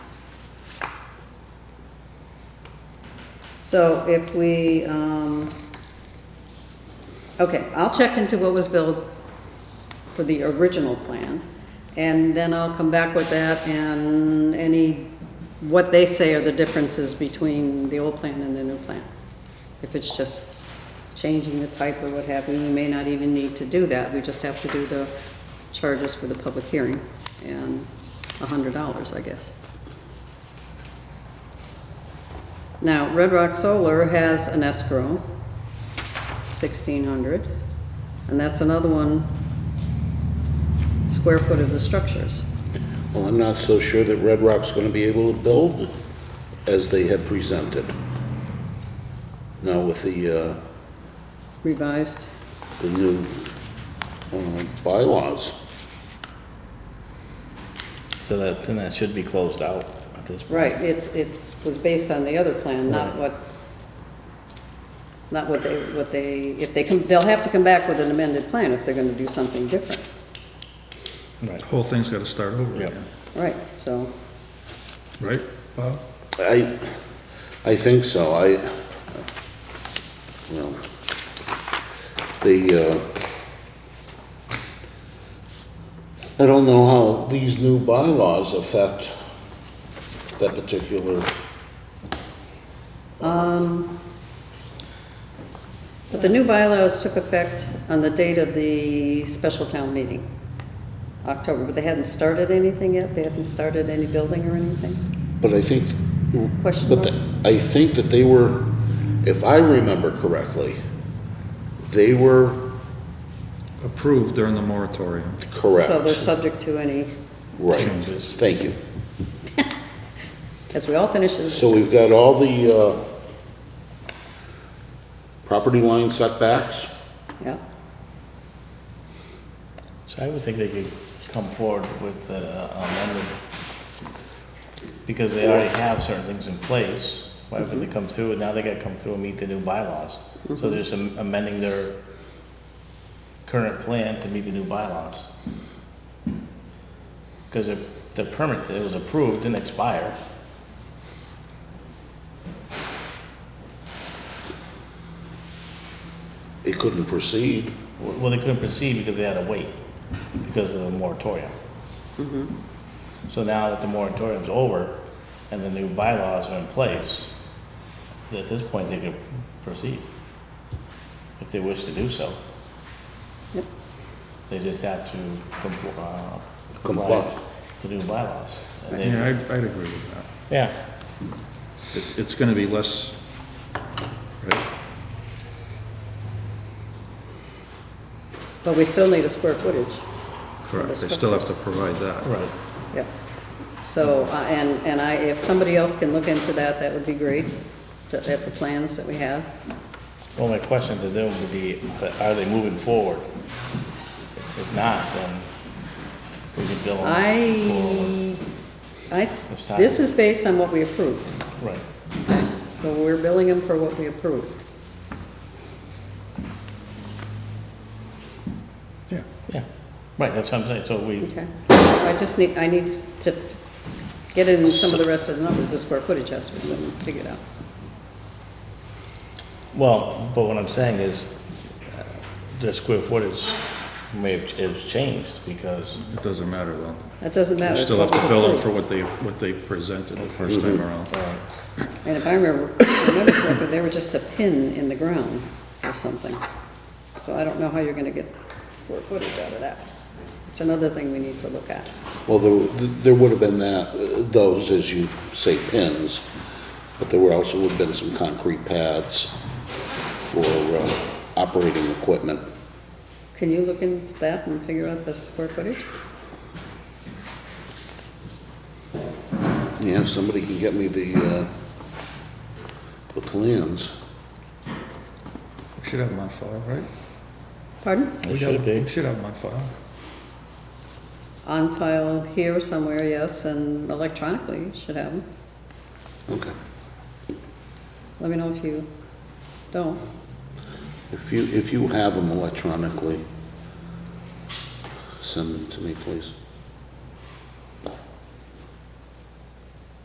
So if we, um, okay, I'll check into what was billed for the original plan, and then I'll come back with that and any, what they say are the differences between the old plan and the new plan. If it's just changing the type or what have you, we may not even need to do that, we just have to do the charges for the public hearing, and a hundred dollars, I guess. Now, Red Rock Solar has an escrow, sixteen hundred, and that's another one, square foot of the structures. Well, I'm not so sure that Red Rock's gonna be able to build as they had presented. Now with the, uh, Revised, the new, uh, bylaws. So that, then that should be closed out at this point. right, it's, it's, was based on the other plan, not what, not what they, what they, if they come, they'll have to come back with an amended plan if they're gonna do something different. Right. Whole thing's gotta start over Yep. again, Right, so, right, Bob? I, I think so, I, well, the, uh, I don't know how these new bylaws affect that particular, Um, but the new bylaws took effect on the date of the special town meeting, October, but they hadn't started anything yet, they hadn't started any building or anything? but I think, Question but mark? the- I think that they were, if I remember correctly, they were Approved during the moratorium. So they're correct, subject to any, right, Changes. thank you. as we all finish this. So we've got all the, uh, property line setbacks. Yeah, So I would think they could come forward with uh, amended, because they already have certain things in place. Why would they come through, and now they gotta come through and meet the new bylaws? So they're just am- amending their current plan to meet the new bylaws. Because the, the permit that was approved didn't expire. It couldn't proceed. Well, they couldn't proceed because they had to wait, because of the moratorium. So now that the moratorium's over and the new bylaws are in place, at this point, they could proceed if they wish to do so. Yep. They just have to compl- uh, comply Comply. with the new bylaws. And they- Yeah, I'd, I'd agree with that. Yeah, It, it's gonna be less, right? but we still need a square footage, Correct, they still have to provide that. right. yeah. So, uh, and, and I, if somebody else can look into that, that would be great, that, at the plans that we have. Well, my question to them would be, are they moving forward? If not, then we could bill them. forward. I, I, Let's talk. this is based on what we approved, Right. so we're billing them for what we approved. Yeah. Yeah, right, that's what I'm saying, so we, Okay, I just need, I need to get in some of the rest of the numbers, the square footage has to be figured out. well, but what I'm saying is, uh, the square footage may have, it's changed, because, It doesn't matter though. That doesn't matter. You it's still have what to was bill them approved. for what they, what they presented the first Mm-hmm. time around. And if I remember, remember correctly, they were just a pin in the ground or something. So I don't know how you're gonna get square footage out of that. It's another thing we need to look at. Well, there, there would have been that, those, as you say, pins, but there were also would have been some concrete pads for uh, operating equipment. Can you look into that and figure out the square footage? Yeah, if somebody can get me the, uh, the plans. We should have them on file, right? Pardon? It should be. We should have them on file. On file here somewhere, yes, and electronically, you should have them. Okay. Let me know if you don't. If you, if you have them electronically, send them to me, please.